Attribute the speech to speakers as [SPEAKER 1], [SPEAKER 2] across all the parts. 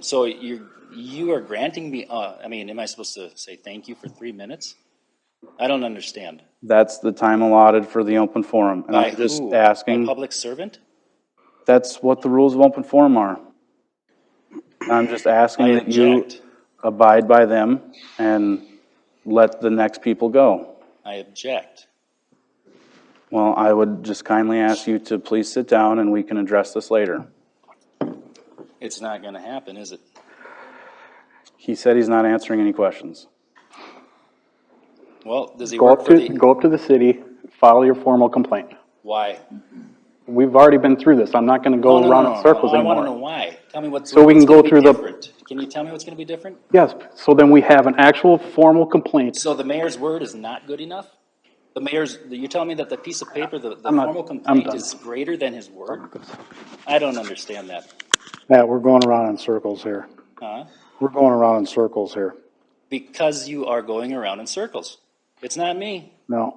[SPEAKER 1] So you're, you are granting me, uh, I mean, am I supposed to say thank you for three minutes? I don't understand.
[SPEAKER 2] That's the time allotted for the open forum. And
[SPEAKER 1] By
[SPEAKER 2] I'm just
[SPEAKER 1] who? A
[SPEAKER 2] asking,
[SPEAKER 1] public servant?
[SPEAKER 2] that's what the rules of open forum are. I'm just asking
[SPEAKER 1] I
[SPEAKER 2] that you
[SPEAKER 1] object.
[SPEAKER 2] abide by them and let the next people go.
[SPEAKER 1] I object.
[SPEAKER 2] Well, I would just kindly ask you to please sit down and we can address this later.
[SPEAKER 1] It's not gonna happen, is it?
[SPEAKER 2] He said he's not answering any questions.
[SPEAKER 1] Well, does he
[SPEAKER 3] Go
[SPEAKER 1] work
[SPEAKER 3] up
[SPEAKER 1] for
[SPEAKER 3] to,
[SPEAKER 1] the,
[SPEAKER 3] go up to the city, file your formal complaint.
[SPEAKER 1] why?
[SPEAKER 3] We've already been through this. I'm not gonna
[SPEAKER 1] No,
[SPEAKER 3] go
[SPEAKER 1] no,
[SPEAKER 3] around
[SPEAKER 1] no,
[SPEAKER 3] in
[SPEAKER 1] no,
[SPEAKER 3] circles
[SPEAKER 1] no, I wanna know
[SPEAKER 3] anymore.
[SPEAKER 1] why. Tell me what's.
[SPEAKER 3] So we
[SPEAKER 1] what's
[SPEAKER 3] can go
[SPEAKER 1] gonna be
[SPEAKER 3] through the-
[SPEAKER 1] different. Can you tell me what's gonna be different?
[SPEAKER 3] Yes, so then we have an actual formal complaint.
[SPEAKER 1] So the mayor's word is not good enough? The mayor's, you're telling me that the piece of paper, the, the
[SPEAKER 3] I'm not-
[SPEAKER 1] formal
[SPEAKER 3] I'm
[SPEAKER 1] complaint
[SPEAKER 3] done.
[SPEAKER 1] is greater than his word? I don't understand that,
[SPEAKER 4] Matt, we're going around in circles here.
[SPEAKER 1] huh?
[SPEAKER 4] We're going around in circles here.
[SPEAKER 1] Because you are going around in circles. It's not me.
[SPEAKER 4] No.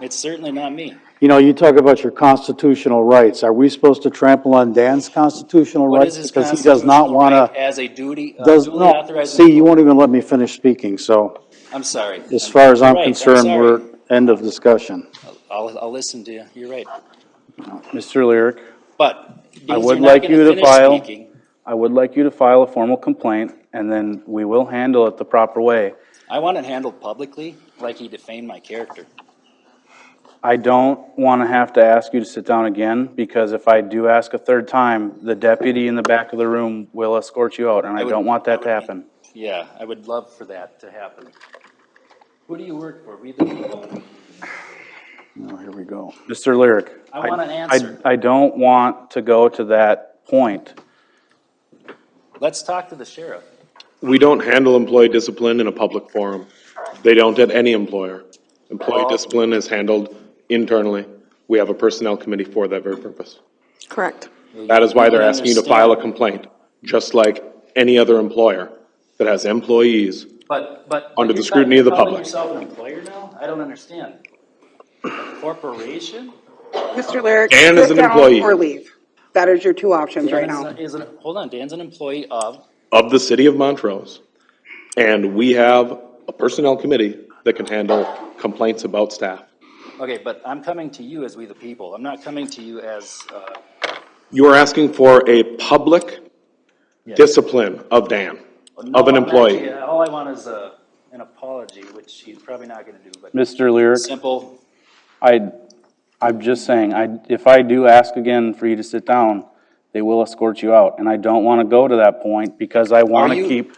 [SPEAKER 1] It's certainly not me.
[SPEAKER 4] You know, you talk about your constitutional rights. Are we supposed to trample on Dan's constitutional
[SPEAKER 1] What
[SPEAKER 4] rights?
[SPEAKER 1] is his
[SPEAKER 4] Because he does not
[SPEAKER 1] constitutional
[SPEAKER 4] want
[SPEAKER 1] right
[SPEAKER 4] to,
[SPEAKER 1] as a duty, a
[SPEAKER 4] does,
[SPEAKER 1] duly
[SPEAKER 4] no,
[SPEAKER 1] authorized?
[SPEAKER 4] see, you won't even let me finish speaking, so
[SPEAKER 1] I'm sorry.
[SPEAKER 4] as far as I'm
[SPEAKER 1] Right,
[SPEAKER 4] concerned,
[SPEAKER 1] sorry.
[SPEAKER 4] we're, end of discussion.
[SPEAKER 1] I'll, I'll listen to you, you're right.
[SPEAKER 2] Mr. Lyric,
[SPEAKER 1] But because
[SPEAKER 2] would
[SPEAKER 1] you're not
[SPEAKER 2] like
[SPEAKER 1] gonna
[SPEAKER 2] you to
[SPEAKER 1] finish
[SPEAKER 2] file-
[SPEAKER 1] speaking,
[SPEAKER 2] I would like you to file a formal complaint and then we will handle it the proper way.
[SPEAKER 1] I want it handled publicly, like he defamed my character.
[SPEAKER 2] I don't want to have to ask you to sit down again, because if I do ask a third time, the deputy in the back of the room will escort you out, and I
[SPEAKER 1] would-
[SPEAKER 2] don't want that to
[SPEAKER 1] I would be-
[SPEAKER 2] happen.
[SPEAKER 1] Yeah, I would love for that to happen. Who do you work for? We the people.
[SPEAKER 4] Oh, here we go.
[SPEAKER 2] Mr. Lyric.
[SPEAKER 1] I want an
[SPEAKER 2] I-
[SPEAKER 1] answer.
[SPEAKER 2] I don't want to go to that point.
[SPEAKER 1] Let's talk to the sheriff.
[SPEAKER 5] We don't handle employee discipline in a public forum. They don't at any employer. Employee
[SPEAKER 1] Oh.
[SPEAKER 5] discipline is handled internally. We have a personnel committee for that very purpose.
[SPEAKER 6] Correct.
[SPEAKER 5] That is why they're
[SPEAKER 1] I
[SPEAKER 5] asking you to
[SPEAKER 1] understand.
[SPEAKER 5] file a complaint, just like any other employer that has employees.
[SPEAKER 1] But, but.
[SPEAKER 5] Under the
[SPEAKER 1] you're
[SPEAKER 5] scrutiny of the
[SPEAKER 1] calling
[SPEAKER 5] public.
[SPEAKER 1] yourself an employer now? I don't understand. A Corporation?
[SPEAKER 6] Mr. Lyric,
[SPEAKER 5] Dan is
[SPEAKER 6] sit
[SPEAKER 5] an
[SPEAKER 6] down
[SPEAKER 5] employee.
[SPEAKER 6] or leave. That is your two options right
[SPEAKER 1] Dan's
[SPEAKER 6] now.
[SPEAKER 1] a- Is, an- hold on, Dan's an employee of,
[SPEAKER 5] of the city of Montrose. And we have a personnel committee that can handle complaints about staff.
[SPEAKER 1] okay, but I'm coming to you as we the people. I'm not coming to you as, uh,
[SPEAKER 5] You are asking for a public discipline of Dan, of an
[SPEAKER 1] no,
[SPEAKER 5] employee.
[SPEAKER 1] actually, All I want is a, an apology, which he's probably not gonna do, but
[SPEAKER 2] Mr. Lyric,
[SPEAKER 1] simple,
[SPEAKER 2] I, I'm just saying, I, if I do ask again for you to sit down, they will escort you out, and I don't want to go to that point, because I want
[SPEAKER 1] Are you-
[SPEAKER 2] to keep,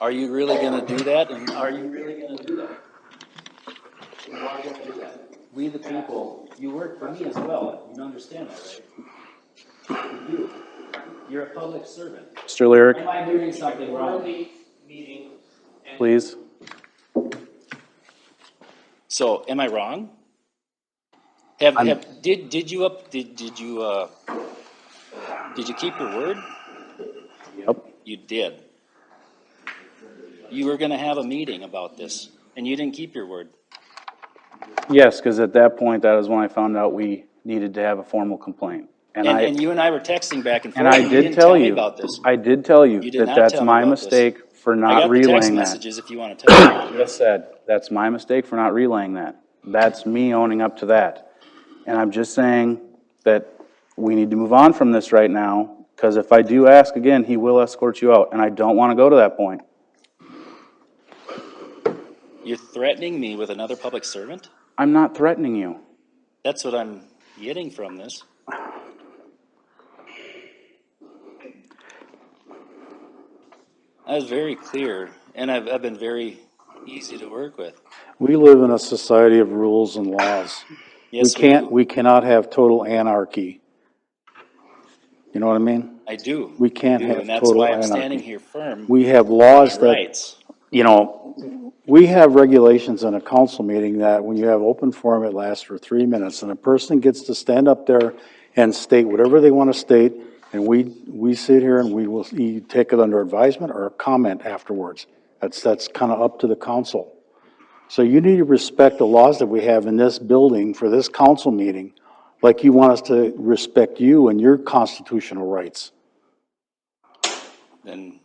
[SPEAKER 1] Are you really gonna do that, and are you really gonna do that? You are gonna do that. We the people, you work for me as well, you understand that, right? You do. You're a public servant.
[SPEAKER 2] Mr. Lyric,
[SPEAKER 1] Am I doing something wrong?
[SPEAKER 2] please.
[SPEAKER 1] So, am I wrong? Have,
[SPEAKER 2] I'm-
[SPEAKER 1] have, did, did you up, did, did you, uh, did you keep your word?
[SPEAKER 2] Yep.
[SPEAKER 1] You did. You were gonna have a meeting about this, and you didn't keep your word.
[SPEAKER 2] Yes, because at that point, that is when I found out we needed to have a formal complaint. And
[SPEAKER 1] And,
[SPEAKER 2] I,
[SPEAKER 1] and you and I were texting back and forth.
[SPEAKER 2] and I
[SPEAKER 1] and
[SPEAKER 2] did
[SPEAKER 1] didn't
[SPEAKER 2] tell
[SPEAKER 1] me
[SPEAKER 2] you.
[SPEAKER 1] About this.
[SPEAKER 2] I did tell you
[SPEAKER 1] You did
[SPEAKER 2] that
[SPEAKER 1] not
[SPEAKER 2] that's
[SPEAKER 1] tell me
[SPEAKER 2] my
[SPEAKER 1] about this.
[SPEAKER 2] mistake for
[SPEAKER 1] I
[SPEAKER 2] not
[SPEAKER 1] got the text
[SPEAKER 2] relaying that.
[SPEAKER 1] messages if you want to tell me.
[SPEAKER 2] Just said, that's my mistake for not relaying that. That's me owning up to that. And I'm just saying that we need to move on from this right now, because if I do ask again, he will escort you out, and I don't want to go to that point.
[SPEAKER 1] You're threatening me with another public servant?
[SPEAKER 2] I'm not threatening you.
[SPEAKER 1] That's what I'm getting from this. I was very clear, and I've, I've been very easy to work with.
[SPEAKER 4] We live in a society of rules and laws. We
[SPEAKER 1] Yes,
[SPEAKER 4] can't,
[SPEAKER 1] do.
[SPEAKER 4] we cannot have total anarchy. You know what I mean?
[SPEAKER 1] I do.
[SPEAKER 4] we can't
[SPEAKER 1] I do,
[SPEAKER 4] have
[SPEAKER 1] And that's
[SPEAKER 4] total
[SPEAKER 1] why I'm
[SPEAKER 4] anarchy.
[SPEAKER 1] standing here firm.
[SPEAKER 4] We have laws that
[SPEAKER 1] Rights.
[SPEAKER 4] you know, we have regulations in a council meeting that when you have open forum, it lasts for three minutes, and a person gets to stand up there and state whatever they want to state, and we, we sit here and we will, you take it under advisement or comment afterwards. That's, that's kind of up to the council. So you need to respect the laws that we have in this building for this council meeting, like you want us to respect you and your constitutional rights.
[SPEAKER 1] Then